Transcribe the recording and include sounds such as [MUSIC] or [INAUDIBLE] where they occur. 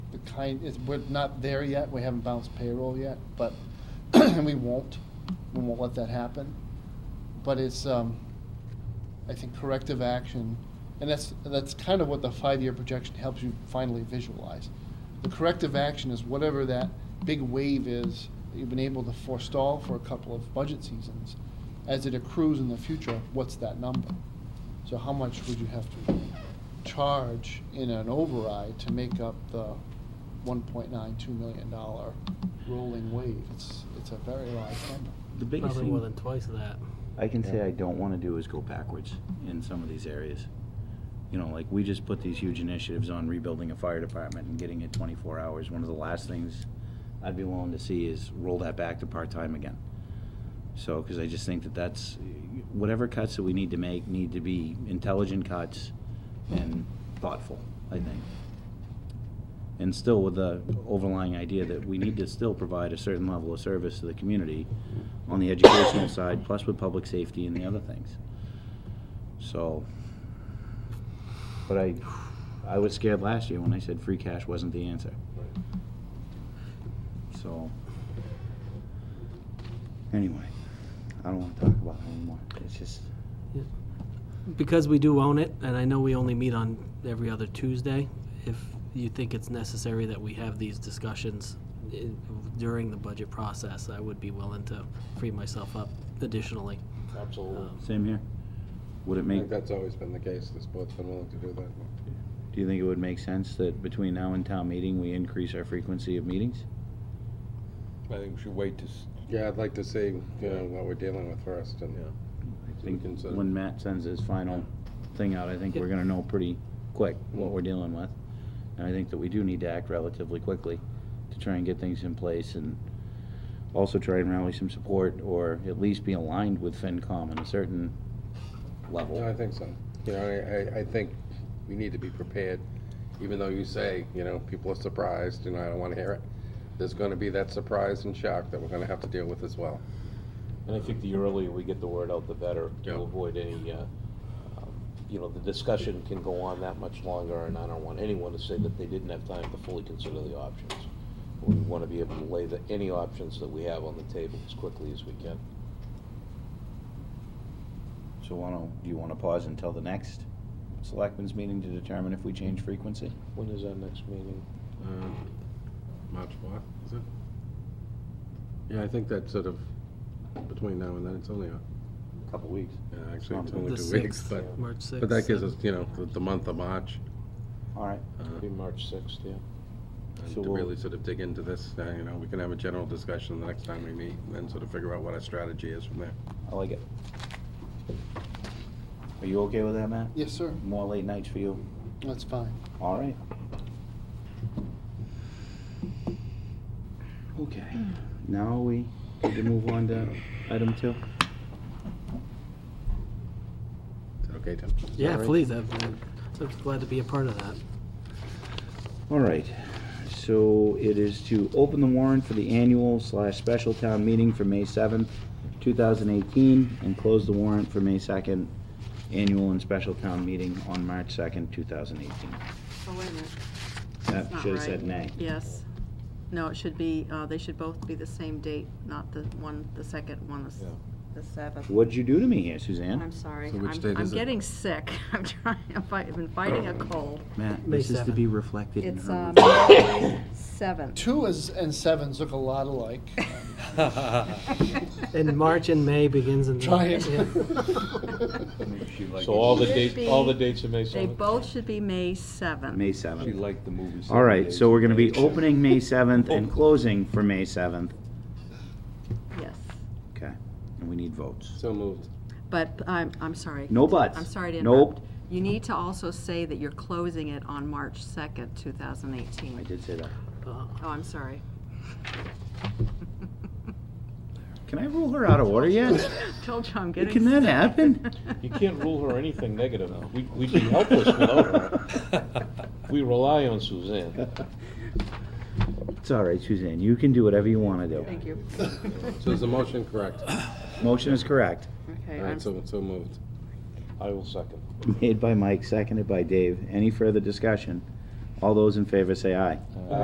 kind, it's, we're not there yet, we haven't bounced payroll yet, but, [CLEARS THROAT] we won't, we won't let that happen. But it's, um, I think corrective action, and that's, that's kind of what the five-year projection helps you finally visualize. The corrective action is whatever that big wave is that you've been able to forestall for a couple of budget seasons. As it accrues in the future, what's that number? So how much would you have to charge in an override to make up the one point nine two million dollar rolling wave? It's, it's a very large number. The biggest Probably more than thing twice of that. I can say Yeah. I don't want to do is go backwards in some of these areas. You know, like we just put these huge initiatives on rebuilding a fire department and getting it 24 hours. One of the last things I'd be willing to see is roll that back to part-time again. So, because I just think that that's, whatever cuts that we need to make need to be intelligent cuts and thoughtful, I think. And still with the overlying idea that we need to still provide a certain level of service to the community on the educational side, plus with public safety and the other things. So, but I, I was scared last year when I said free cash wasn't the answer. So, anyway, I don't want to talk about it anymore. It's just, Because we do own it, and I know we only meet on every other Tuesday, if you think it's necessary that we have these discussions i- during the budget process, I would be willing to free myself up additionally. Absolutely. Um, same here. Would it Uh, I make, think that's always been the case, this board's been willing to do that. do you think it would make sense that between now and town meeting, we increase our frequency of meetings? I think we should wait to, s- Yeah, I'd like to see, you know, what we're dealing with first and. Yeah. I we think can set- when Matt sends his final thing out, I think we're Yeah. gonna know pretty quick what we're dealing with. And I think that we do need to act relatively quickly to try and get things in place and also try and rally some support or at least be aligned with FinCom in a certain No, I level. think so. You know, I, I, I think we need to be prepared, even though you say, you know, people are surprised, you know, I don't wanna hear it. There's gonna be that surprise and shock that we're gonna have to deal with as well. and I think the earlier we get the word out, the better, Yeah. to avoid any, uh, um, you know, the discussion can go on that much longer, and I don't want anyone to say that they didn't have time to fully consider the options. We want to be able to lay the, any options that we have on the table as quickly as we can. So wanna, do you wanna pause until the next selectmen's meeting to determine if we change frequency? When is our next meeting? Um, March what, is it? Yeah, I think that's sort of between now and then, it's only, a Couple weeks. actually, it's it's only only The two weeks, 6th, but, March 6th. but that gives us, you know, the, the month of March. All right, It'll be March sixth, yeah. Uh, And So to we'll- really sort of dig into this, uh, you know, we can have a general discussion the next time we meet, and then sort of figure out what our strategy is from there. I like it. Are you okay with that, Matt? Yes, sir, More late nights for you? that's fine. All right. Okay, now we need to move on to item two. Is that okay, Tim? Yeah, please, I'm I'm glad to be a part of that. All right, so it is to open the warrant for the annual slash special town meeting for May seventh, two thousand eighteen, and close the warrant for May second, annual and special town meeting on March second, two thousand eighteen. Oh, wait a minute. That That's not should have right. said nay. Yes. No, it should be, uh, they should both be the same date, not the one, the second one, the s- Yeah. the seventh. What'd you do to me here, I'm Suzanne? sorry. So which I'm- date I'm is it? getting sick. [LAUGHS] I'm trying, I've fi- I've been fighting a cold. Matt, May this is to 7th. be reflected in It's her. um, May seventh. Two is, and sevens look a lot alike. And March and May begins in. Try it. Yeah. [LAUGHS] [LAUGHS] So all the Should dates, be- all the dates are May They seventh? both should be May seventh. May seventh. liked the movie. All right, so we're gonna be opening May seventh and Oh. closing for May seventh. Yes. Okay, and we need votes. So moved. But I'm, I'm sorry. No buts. I'm sorry to Nope. interrupt. You need to also say that you're closing it on March second, two thousand eighteen. I did say that. Uh, Oh, I'm sorry. Can I rule her out of order yet? [LAUGHS] Told you I'm getting. Can that sick. happen? You can't rule her anything negative. We- We'd be helpless without Uh-huh. her. We rely on Suzanne. It's all right, Suzanne, you can do whatever you wanna do. Thank you. So is the motion correct? Motion is correct. [LAUGHS] Okay, All I'm, right, so, so moved. I will second. Uh, Made by Mike, seconded by Dave. Any further discussion? All those in favor say aye.